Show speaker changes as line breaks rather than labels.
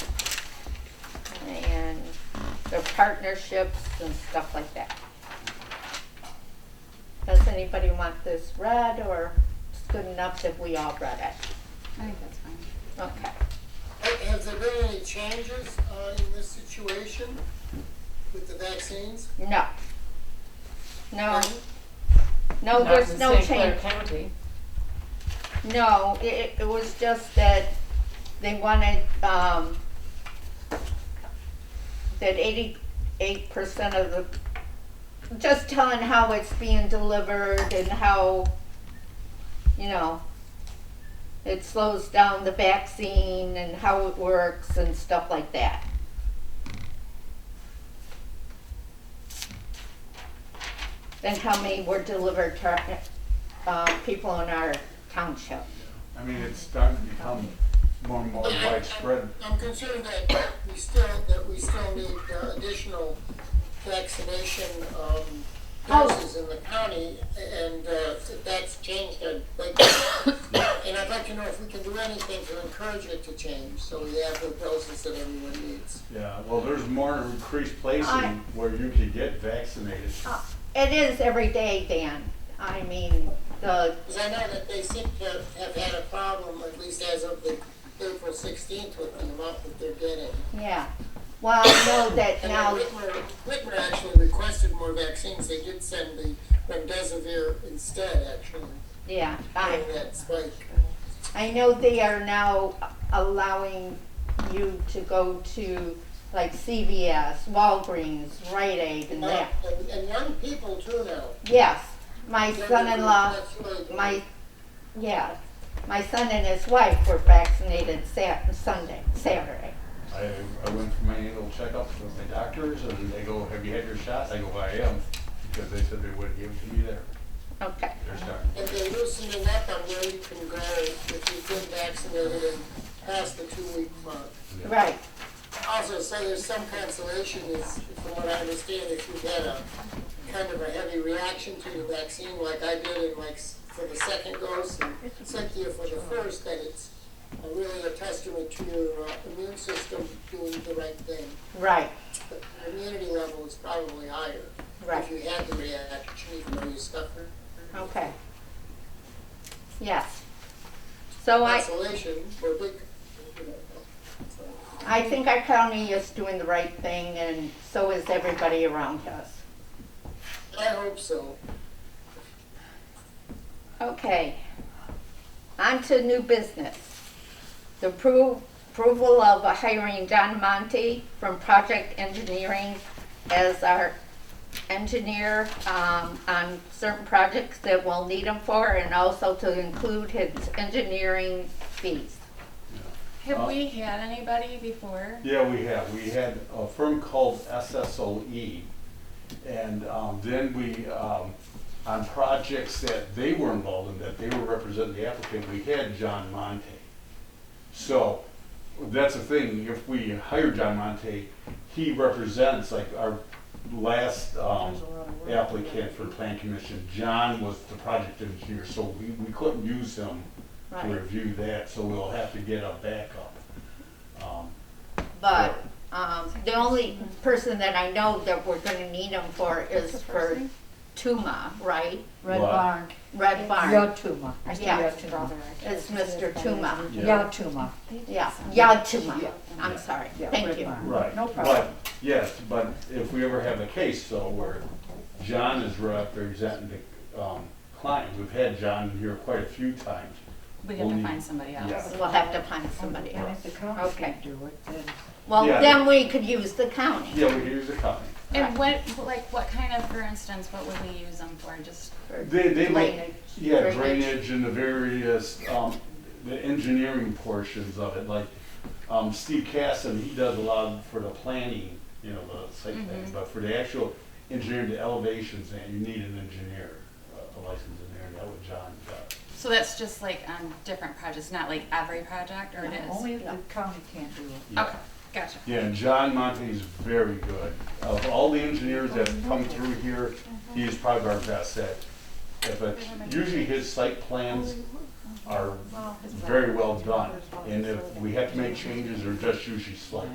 partnerships and stuff like that. Does anybody want this read, or it's good enough if we all read it?
I think that's fine.
Okay.
Has there been any changes uh, in this situation with the vaccines?
No. No,
Pardon?
no, there's no
Not in St. Clair
change.
County.
No, it- it, it was just that they wanted, um, that eighty-eight percent of the, just telling how it's being delivered and how, you know, it slows down the vaccine and how it works and stuff like that. And how many were delivered to, uh, people in our township.
I mean, it's starting to become more and more widespread.
I'm concerned that we still, that we still need uh, additional vaccination um, doses in the county, and uh, if that's changed, I'd like, and I'd like to know if we can do anything to encourage it to change, so we have the doses that everyone needs.
Yeah, well, there's more increased places
I-
where you could get vaccinated.
Uh, It is every day, Dan. I mean, the,
Because I know that they seem to have had a problem, at least as of the April 16th, with the amount that they're getting.
yeah. Well, I know that
And
now,
then Whitmer, Whitmer actually requested more vaccines, they did send the remdesivir instead, actually,
yeah, I,
during that spike.
I know they are now allowing you to go to like CVS, Walgreens, Rite Aid and
Uh,
that.
And, and young people too now.
Yes, my son-in-law,
That's really-
my, yeah, my son and his wife were vaccinated Sat- Sunday, Saturday.
I, I went for my annual checkups with my doctors and they go, have you had your shots? I go, I am, because they said they wouldn't give it to me there.
Okay,
They're starting.
And they're loosening up on where you can go if you've been vaccinated and past the two-week mark.
right.
Also, so there's some consolation is, from what I understand, if you had a kind of a heavy reaction to the vaccine like I did in like s- for the second dose and Cynthia for the first, that it's uh, really a testament to your uh, immune system doing the right thing.
Right,
But your immunity level is probably higher
right.
if you had the reaction, even though you suffered
Okay. Yes. So I,
isolation or big. you know, so.
I think our county is doing the right thing and so is everybody around us.
I hope so.
Okay. On to new business. The appro- approval of hiring Don Monte from Project Engineering as our engineer um, on certain projects that we'll need him for and also to include his engineering fees.
Have
Uh,
we had anybody before?
Yeah, we have. We had a firm called SSOE. E. And um, then we, um, on projects that they were involved in, that they were representing the applicant, we had John Monte. So that's the thing, if we hire John Monte, he represents, like, our last um, applicant for plan commission, John was the project engineer, so we, we couldn't use him to
Right.
review that, so we'll have to get a backup. Um,
But um, the only person that I know that we're gonna need them for is for Tuma, right?
Red
What?
Barn.
Red Barn.
Yotuma. I say
Yeah.
Yotuma.
It's Mr. Tuma.
Yeah.
Yotuma.
Yeah, yeah, Tuma. I'm sorry.
Yeah,
Thank
Red
you.
Barn.
Right.
No problem.
But, yes, but if we ever have a case though where John is representing the um, client, we've had John here quite a few times.
We have to
Only-
find somebody else.
Yeah.
We'll have to find somebody
And
else.
if the council
Okay.
can do it, then
Well,
Yeah.
then we could use the county.
Yeah, we could use the company.
And what, like, what kind of, for instance, what would we use them for? Just,
for
They, they make,
drainage.
yeah, drainage and the various, um, the engineering portions of it, like, um, Steve Casson, he does a lot for the planning, you know, the site thing, but for the actual engineering, the elevations, and you need an engineer, uh, a licensed engineer, that what John uh, does.
so that's just like on different projects, not like every project, or it is?
only if
Yeah.
the county can't do it.
Yeah.
Okay, gotcha.
Yeah, and John Monte is very good. Of all the engineers that have come through here, he is probably our best at. at the- usually his site plans are very well done. And if we have to make changes, they're just usually slight.